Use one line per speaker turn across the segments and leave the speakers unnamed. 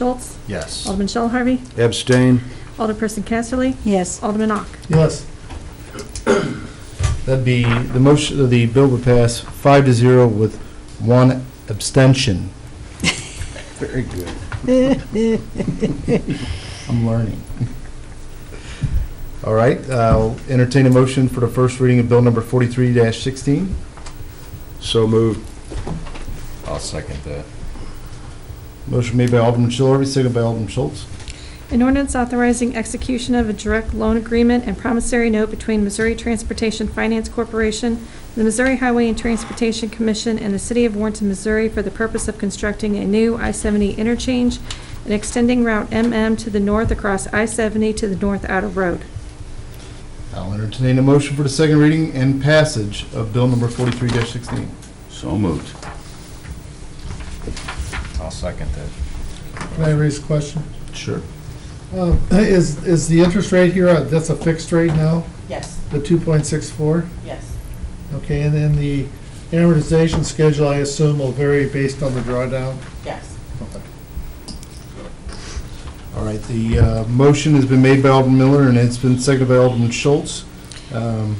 Schultz,
Yes.
Alderman Shell Harvey,
Abstain.
Alderperson Casterly,
Yes.
Alderman Ock.
Yes. That'd be, the motion, the bill would pass five to zero with one abstention.
Very good.
I'm learning. All right, I'll entertain a motion for the first reading of bill number forty-three sixteen.
So moved.
I'll second that.
Motion made by Alderman Shell Harvey, seconded by Alderman Schultz.
An ordinance authorizing execution of a direct loan agreement and promissory note between Missouri Transportation Finance Corporation, the Missouri Highway and Transportation Commission, and the City of Warrenton, Missouri for the purpose of constructing a new I-70 interchange and extending Route MM to the north across I-70 to the north out of road.
I'll entertain a motion for the second reading and passage of bill number forty-three sixteen.
So moved. I'll second that.
Can I raise a question?
Sure.
Uh, Is, is the interest rate here, uh, that's a fixed rate now,
Yes,
the 2.64?
yes,
Okay, and then the amortization schedule, I assume, will vary based on the drawdown?
yes.
Okay.
All right, the uh, motion has been made by Alderman Miller, and it's been seconded by Alderman Schultz. Um,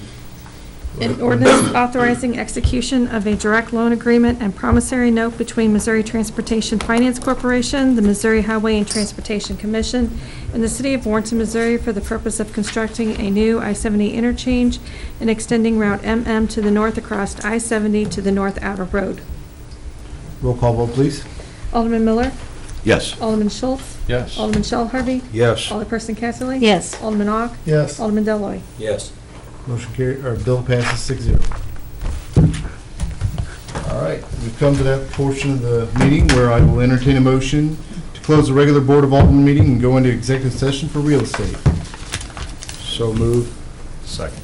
An ordinance authorizing execution of a direct loan agreement and promissory note between Missouri Transportation Finance Corporation, the Missouri Highway and Transportation Commission, and the City of Warrenton, Missouri for the purpose of constructing a new I-70 interchange and extending Route MM to the north across I-70 to the north outer road.
Roll call vote, please.
Alderman Miller,
Yes.
Alderman Schultz,
Yes.
Alderman Shell Harvey,
Yes.
Alderperson Casterly.
Yes.
Alderman Ock,
Yes,
Alderman Deloy.
Yes.
Motion carried, or bill passes six zero. All right, we've come to that portion of the meeting where I will entertain a motion to close the regular Board of Alderman meeting and go into executive session for real estate.
So moved.
Second.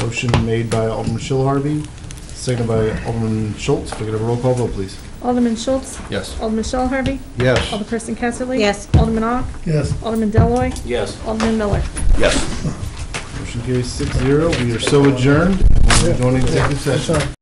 Motion made by Alderman Shell Harvey, seconded by Alderman Schultz. Can we get a roll call vote, please?
Alderman Schultz,
Yes.
Alderman Shell Harvey,
Yes.
Alderperson Casterly.
Yes.
Alderman Ock,
yes.
Alderman Deloy,
Yes.
Alderman Miller.
Yes.
Motion carries six zero. We are so adjourned. We're going to executive session.
Sorry.